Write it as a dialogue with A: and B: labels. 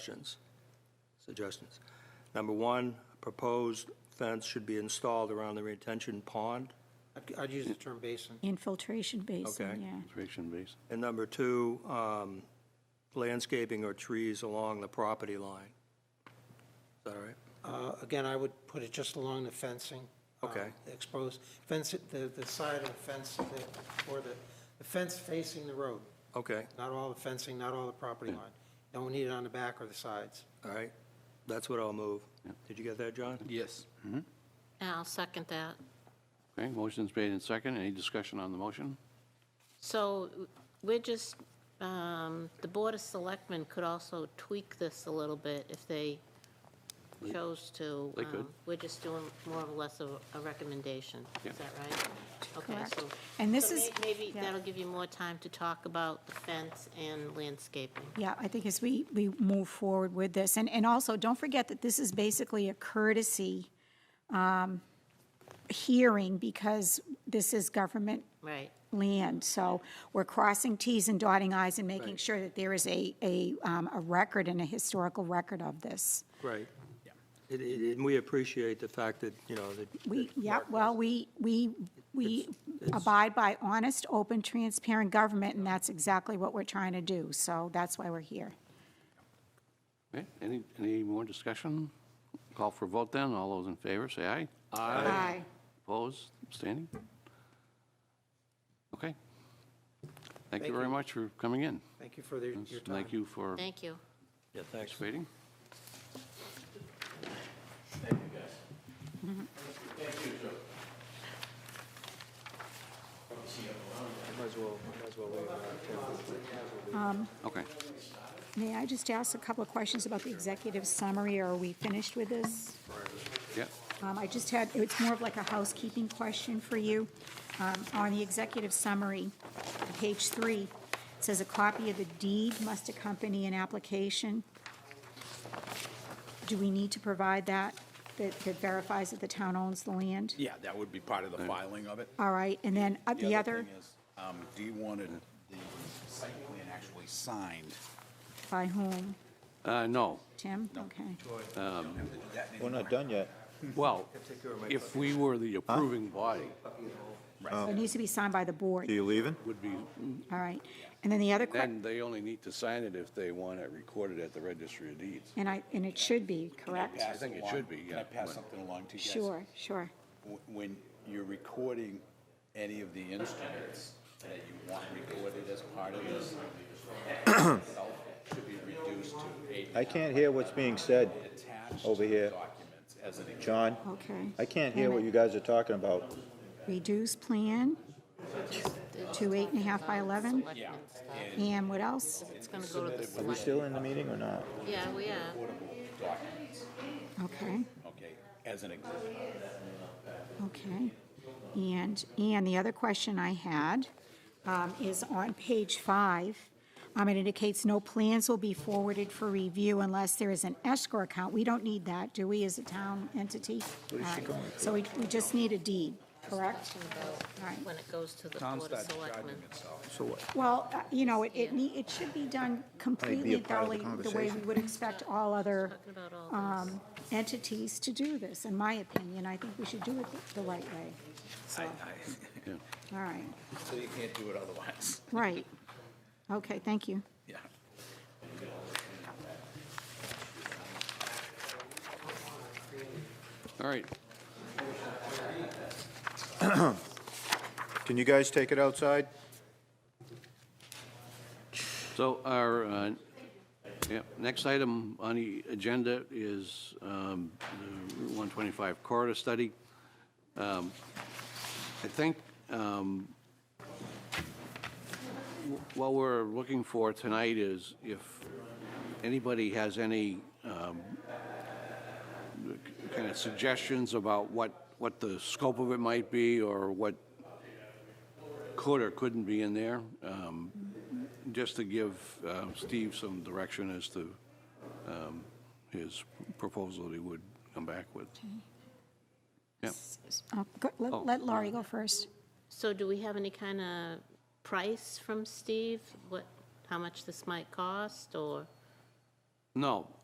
A: Suggestions, suggestions. Number one, proposed fence should be installed around the retention pond.
B: I'd- I'd use the term basin.
C: Infiltration
A: Okay.
C: basin, yeah.
D: Conservation base.
A: And number two, um, landscaping or trees along the property line. Is that all right?
B: Uh, Again, I would put it just along the fencing. uh,
A: Okay.
B: Exposed, fence, it- the, the side of the fence, that- or the, the fence facing the road,
A: Okay,
B: not all the fencing, not all the property line. Don't need it on the back or the sides.
A: all right. That's what I'll move. Did you get that, John?
E: Yes.
F: I'll second that.
D: Okay, motion's made and second. Any discussion on the motion?
F: So we're just, um, the Board of Selectmen could also tweak this a little bit if they chose to.
D: They could.
F: Um, We're just doing more or less of a recommendation.
D: Yeah.
F: Is that right? Okay,
C: Correct.
F: so.
C: And this
F: so
C: is-
F: may- Maybe
C: yeah.
F: that'll give you more time to talk about the fence and landscaping.
C: Yeah, I think as we, we move forward with this, and, and also, don't forget that this is basically a courtesy um, hearing because this is government
F: Right.
C: land, so we're crossing Ts and dotting Is and making
A: Right.
C: sure that there is a, a, um, a record and a historical record of this.
A: Right. It- it- And we appreciate the fact that, you know, that.
C: We,
A: that
C: yeah,
A: Mark was-
C: well, we, we, we abide by honest, open, transparent government, and that's exactly what we're trying to do, so that's why we're here.
D: Okay, any, any more discussion? Call for vote then. All those in favor, say aye.
C: Aye.
D: Opposed, abstaining? Okay. Thank you very much for coming in.
B: Thank you for the- your time.
D: Thank you for
F: Thank you.
A: Yeah, thanks.
D: participating.
A: Might as well, might as well leave.
D: Okay.
C: May I just ask a couple of questions about the executive summary, or are we finished with this?
D: Yeah,
C: Um, I just had, it's more of like a housekeeping question for you. Um, On the executive summary, on page three, it says a copy of the deed must accompany an application. Do we need to provide that, that that verifies that the town owns the land?
E: Yeah, that would be part of the filing of it.
C: All right, and then uh, the other,
E: thing is, um, Do you want it- the site plan actually signed?
C: by whom?
D: Uh, no.
C: Tim? Okay.
G: We're not done yet.
D: Well, if we were the approving body,
C: So It needs to be signed by the
G: Are
C: board,
G: you leaving?
D: would be,
C: all right. And then the other question,
D: then they only need to sign it if they want it recorded at the registry of deeds.
C: and I, and it should be, correct?
E: Pass
D: think it
E: along-
D: should be,
E: Can
D: yeah,
E: I pass
D: but-
E: something along to you guys?
C: Sure, sure.
E: Wh- When you're recording any of the instruments that you want recorded as part of this, itself should be reduced to a
G: I can't hear what's being said over here.
E: documents as an
G: John,
C: Okay.
G: I can't hear what you guys are talking about.
C: Reduce plan to eight and a half by 11.
F: Selectmen stuff.
C: And what else?
F: It's going to go to the
G: Are we
F: select.
G: still in the meeting or not?
F: Yeah, we are.
E: documents,
C: Okay,
E: okay, as an example.
C: okay. And, and the other question I had um, is on page five, um, it indicates no plans will be forwarded for review unless there is an escrow account. We don't need that, do we, as a town entity? What is she going So we, we just need a deed, correct? All right.
F: When it goes to the Board of Selectmen.
C: Well, uh, you know, it, it nee- it should be done completely
G: part of the
C: thoroughly, the way we would expect all other
F: Talking about all this.
C: um, entities to do this, in my opinion. I think we should do it the- the right way. So, all right,
E: So you can't do it otherwise,
C: right. Okay, thank you.
E: yeah.
D: All right,
G: Can you guys take it outside?
D: So our, uh, yeah, next item on the agenda is um, the Route 125 corridor study. Um, I think um, wh- what we're looking for tonight is if anybody has any um, kind of suggestions about what, what the scope of it might be or what could or couldn't be in there. Um, just to give uh, Steve some direction as to um, his proposal that he would come back with. Yeah,
C: Uh, go- Let let Laurie go first.
F: So do we have any kind of price from Steve? What, how much this might cost, or
D: No,